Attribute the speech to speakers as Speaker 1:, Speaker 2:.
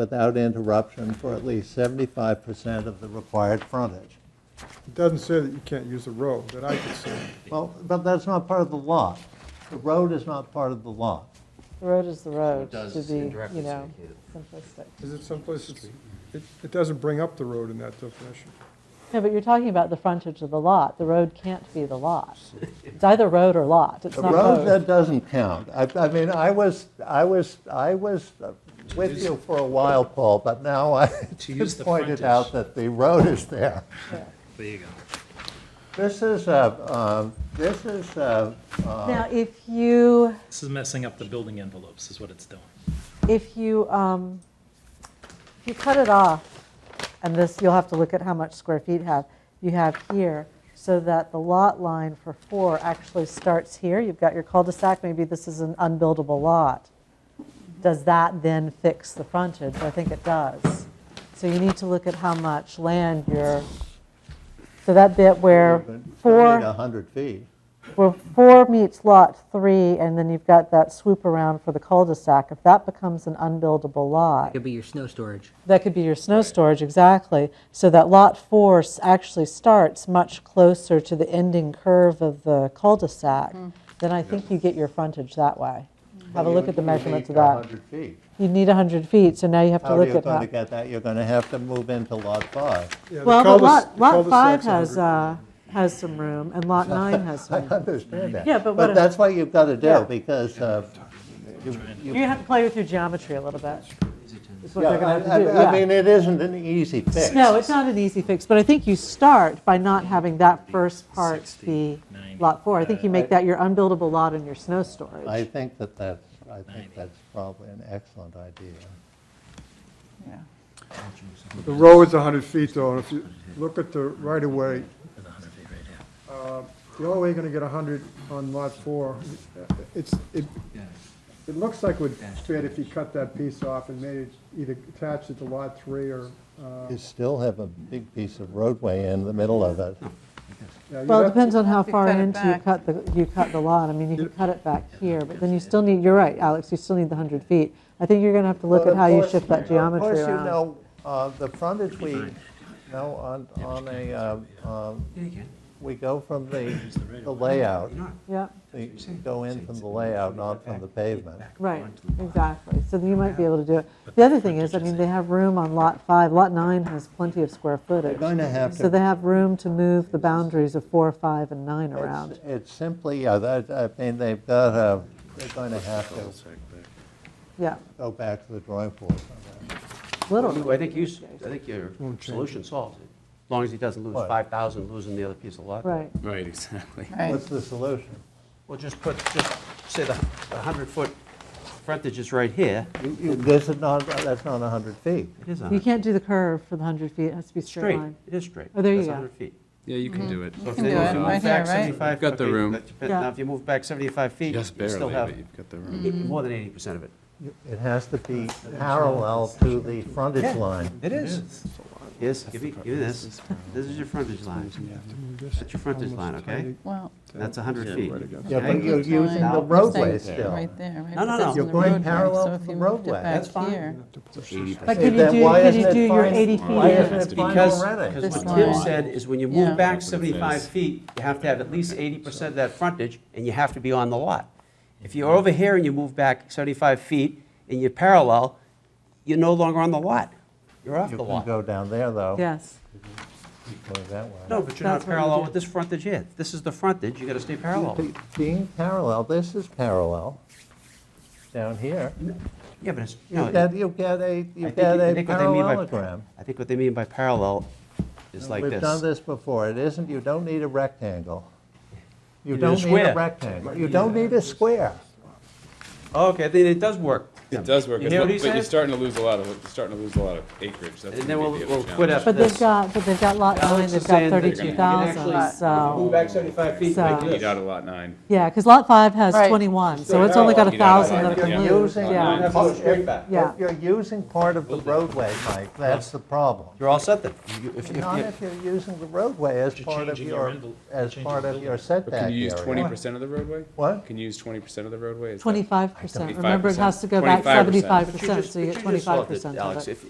Speaker 1: without interruption for at least 75% of the required frontage.
Speaker 2: It doesn't say that you can't use the road, that I could see.
Speaker 1: Well, but that's not part of the lot. The road is not part of the lot.
Speaker 3: The road is the road,
Speaker 4: does
Speaker 3: to be,
Speaker 4: indirectly
Speaker 3: you know,
Speaker 4: indicate
Speaker 3: simplistic.
Speaker 2: Is it someplace, it's- it, it doesn't bring up the road in that definition.
Speaker 3: No, but you're talking about the frontage of the lot. The road can't be the lot. It's either road or lot, it's
Speaker 1: The
Speaker 3: not
Speaker 1: road,
Speaker 3: both.
Speaker 1: that doesn't count. I, I mean, I was, I was, I was with you for a while, Paul, but now I
Speaker 4: To use the
Speaker 1: pointed out
Speaker 4: frontage.
Speaker 1: that the road is there.
Speaker 4: There you go.
Speaker 1: This is a, um, this is a, um,
Speaker 3: Now, if you,
Speaker 5: This is messing up the building envelopes, is what it's doing.
Speaker 3: if you, um, if you cut it off, and this, you'll have to look at how much square feet have, you have here, so that the lot line for four actually starts here. You've got your cul-de-sac, maybe this is an unbuildable lot. Does that then fix the frontage? I think it does. So you need to look at how much land you're, so that bit where four.
Speaker 1: still need 100 feet.
Speaker 3: Well, four meets lot three, and then you've got that swoop around for the cul-de-sac. If that becomes an unbuildable lot,
Speaker 6: Could be your snow storage.
Speaker 3: that could be your snow storage, exactly. So that lot four s- actually starts much closer to the ending curve of the cul-de-sac. Then I think you get your frontage that way. Have a look at the measurements of that.
Speaker 1: 100 feet.
Speaker 3: You'd need 100 feet, so now you have to
Speaker 1: How are
Speaker 3: look
Speaker 1: you
Speaker 3: at
Speaker 1: going to
Speaker 3: that.
Speaker 1: get that? You're going to have to move into Lot 5.
Speaker 2: Yeah, the
Speaker 3: Well, but
Speaker 2: cul-de-
Speaker 3: lot,
Speaker 2: the
Speaker 3: lot five
Speaker 2: cul-de-sac's
Speaker 3: has,
Speaker 2: 100.
Speaker 3: uh, has some room, and lot nine has
Speaker 1: I
Speaker 3: some room.
Speaker 1: understand that.
Speaker 3: Yeah, but what if-
Speaker 1: that's what you've got to
Speaker 3: Yeah.
Speaker 1: do, because uh, you- you...
Speaker 3: You have to play with your geometry a little bit. Is what
Speaker 1: Yeah,
Speaker 3: they're going
Speaker 1: I-
Speaker 3: to have to do,
Speaker 1: I-
Speaker 3: yeah.
Speaker 1: I mean, it isn't an easy fix.
Speaker 3: No, it's not an easy fix, but I think you start by not having that first part be
Speaker 5: 60, 90.
Speaker 3: lot four. I think you make that your unbuildable lot and your snow
Speaker 1: I
Speaker 3: storage.
Speaker 1: think that that's, I think that's probably an excellent idea.
Speaker 3: uh,
Speaker 2: The road is 100 feet though, and if you look at the right-of-way, uh, the only way you're going to get 100 on lot four, it's, it, it looks like would fit if you cut that piece off and made it either attached it to lot three or, uh,
Speaker 1: You still have a big piece of roadway in the middle of it.
Speaker 2: yeah, you'd
Speaker 3: Well,
Speaker 2: have
Speaker 3: it
Speaker 2: to-
Speaker 3: depends on how far
Speaker 7: cut it
Speaker 3: into you
Speaker 7: back.
Speaker 3: cut the, you cut the lot. I mean, you can cut it back here, but then you still need, you're right, Alex, you still need the 100 feet. I think you're going to have to look
Speaker 1: But
Speaker 3: at
Speaker 1: of
Speaker 3: how you
Speaker 1: course-
Speaker 3: shift that
Speaker 1: Of
Speaker 3: geometry
Speaker 1: course, you
Speaker 3: around.
Speaker 1: know, uh, the frontage we, no, on, on a, um, um,
Speaker 4: Yeah, you can.
Speaker 1: we go from the, the layout,
Speaker 4: You're not.
Speaker 3: Yeah,
Speaker 1: we go in from the layout, not from the pavement.
Speaker 3: right, exactly. So then you might be able to do it. The other thing is, I mean, they have room on lot five. Lot nine has plenty of square footage.
Speaker 1: Going to have
Speaker 3: So
Speaker 1: to
Speaker 3: they have room to move the boundaries of four, five, and nine
Speaker 1: It's-
Speaker 3: around.
Speaker 1: It's simply, yeah, that, I mean, they've got, uh, they're going to have to
Speaker 3: Yeah,
Speaker 1: go back to the drawing board.
Speaker 3: literally.
Speaker 8: I think you, s- I think your solution solves it, as long as he doesn't lose
Speaker 1: What?
Speaker 8: 5,000, losing the other piece of lot.
Speaker 3: Right.
Speaker 4: Right, exactly.
Speaker 7: Right.
Speaker 1: What's the solution?
Speaker 8: Well, just put, just say the 100-foot frontage is right here.
Speaker 1: You- you- This is not, that's not 100 feet.
Speaker 8: It is
Speaker 3: You
Speaker 8: 100.
Speaker 3: can't do the curve for the hundred feet. It has to be a straight
Speaker 8: Straight,
Speaker 3: line.
Speaker 8: it is straight.
Speaker 3: Oh, there you
Speaker 8: That's
Speaker 3: go.
Speaker 8: 100 feet.
Speaker 9: Yeah, Mm-hmm. you can do it.
Speaker 8: So if
Speaker 7: can
Speaker 8: they
Speaker 7: do
Speaker 8: move
Speaker 7: it,
Speaker 8: move
Speaker 7: right
Speaker 8: back
Speaker 7: here, right?
Speaker 8: 75
Speaker 9: You've got the
Speaker 8: okay,
Speaker 9: room.
Speaker 8: that's- but
Speaker 3: Yeah.
Speaker 8: Now, if you move back 75 feet, you
Speaker 9: Just
Speaker 8: still
Speaker 9: barely,
Speaker 8: have
Speaker 9: but you've got the room.
Speaker 8: more than 80% of it.
Speaker 1: It has to be parallel to the frontage line.
Speaker 8: It is. Yes, give me, give me this. This is your frontage line. That's your frontage line, okay?
Speaker 7: Well,
Speaker 8: That's 100 feet.
Speaker 1: Yeah, but
Speaker 8: Okay?
Speaker 1: you're using the
Speaker 8: Now-
Speaker 1: roadway
Speaker 7: right
Speaker 1: still.
Speaker 7: there, right?
Speaker 8: No, no,
Speaker 7: But
Speaker 8: no.
Speaker 7: that's
Speaker 8: You're
Speaker 7: in the
Speaker 1: going
Speaker 7: roadway,
Speaker 1: parallel
Speaker 7: so
Speaker 1: to
Speaker 7: if
Speaker 1: the
Speaker 7: you moved it
Speaker 1: roadway.
Speaker 7: back
Speaker 8: That's fine.
Speaker 7: here,
Speaker 3: But
Speaker 1: Then
Speaker 3: could you do,
Speaker 1: why
Speaker 3: could
Speaker 1: isn't
Speaker 3: you
Speaker 1: it
Speaker 3: do your
Speaker 1: fine-
Speaker 3: eighty feet
Speaker 1: Why isn't
Speaker 3: here?
Speaker 1: it fine
Speaker 8: Because-
Speaker 1: already?
Speaker 7: This
Speaker 8: Because what Tim
Speaker 7: line.
Speaker 8: said is when you
Speaker 7: Yeah.
Speaker 8: move back 75 feet, you have to have at least 80% of that frontage, and you have to be on the lot. If you're over here and you move back 75 feet and you're parallel, you're no longer on the lot. You're off
Speaker 1: You
Speaker 8: the
Speaker 1: can
Speaker 8: lot.
Speaker 1: go down there, though.
Speaker 3: Yes.
Speaker 1: Go that way.
Speaker 8: No, but you're not
Speaker 3: That's what you
Speaker 8: parallel
Speaker 3: do.
Speaker 8: with this frontage here. This is the frontage, you gotta stay parallel.
Speaker 1: Be- Being parallel, this is parallel down here.
Speaker 8: Yeah, but it's, no.
Speaker 1: You get, you get a,
Speaker 8: I
Speaker 1: you
Speaker 8: think-
Speaker 1: get
Speaker 8: I
Speaker 1: a
Speaker 8: think what they mean by-
Speaker 1: parallelogram.
Speaker 8: I think what they mean by parallel is like
Speaker 1: We've done this
Speaker 8: this.
Speaker 1: before. It isn't, you don't need a rectangle. You
Speaker 8: need a
Speaker 1: don't need a
Speaker 8: square.
Speaker 1: rectangle. You don't need a square.
Speaker 8: Okay, then it does work.
Speaker 9: It does work,
Speaker 8: You
Speaker 9: as
Speaker 8: hear
Speaker 9: well,
Speaker 8: what
Speaker 9: but
Speaker 8: he
Speaker 9: you're
Speaker 8: said?
Speaker 9: starting to lose a lot of, you're starting to lose a lot of acreage. That's
Speaker 8: And then
Speaker 9: gonna be
Speaker 8: we'll-
Speaker 9: the other
Speaker 8: we'll quit
Speaker 9: challenge.
Speaker 8: up-
Speaker 3: But they've
Speaker 8: This-
Speaker 3: got, but they've got lot nine,
Speaker 8: Alex
Speaker 3: they've
Speaker 8: is
Speaker 3: got
Speaker 8: saying that you
Speaker 3: thirty-two
Speaker 8: can
Speaker 3: thousand,
Speaker 8: actually Move
Speaker 3: so,
Speaker 8: back 75 feet
Speaker 3: So-
Speaker 8: like
Speaker 9: Eat out
Speaker 8: this.
Speaker 9: of lot nine.
Speaker 3: yeah, because lot five has
Speaker 7: Right.
Speaker 3: twenty-one, so it's only got a
Speaker 9: You gotta
Speaker 3: thousand that
Speaker 9: divide
Speaker 3: can
Speaker 9: it, yeah.
Speaker 3: move,
Speaker 1: Using-
Speaker 9: Nine.
Speaker 3: yeah.
Speaker 8: Have to go straight back.
Speaker 3: Yeah.
Speaker 1: If you're using part of the roadway, Mike, that's the problem.
Speaker 8: You're all set then. You- if- if
Speaker 1: Not
Speaker 8: you-
Speaker 1: if you're using the roadway as
Speaker 5: You're
Speaker 1: part of
Speaker 5: changing your
Speaker 1: your,
Speaker 5: envel-
Speaker 1: as
Speaker 5: changing
Speaker 1: part
Speaker 5: the
Speaker 1: of your
Speaker 5: building.
Speaker 1: setback
Speaker 9: But can you use
Speaker 1: area.
Speaker 9: twenty percent of the roadway?
Speaker 1: What?
Speaker 9: Can you use twenty percent of the roadway? Is that-
Speaker 3: Twenty-five percent, remember it
Speaker 9: 25%.
Speaker 3: has to go back
Speaker 8: back
Speaker 10: 75%.
Speaker 8: 75%,
Speaker 3: But you
Speaker 8: so you
Speaker 3: just-
Speaker 8: get
Speaker 3: but you just solved
Speaker 8: 25% of it.
Speaker 3: Alex, if,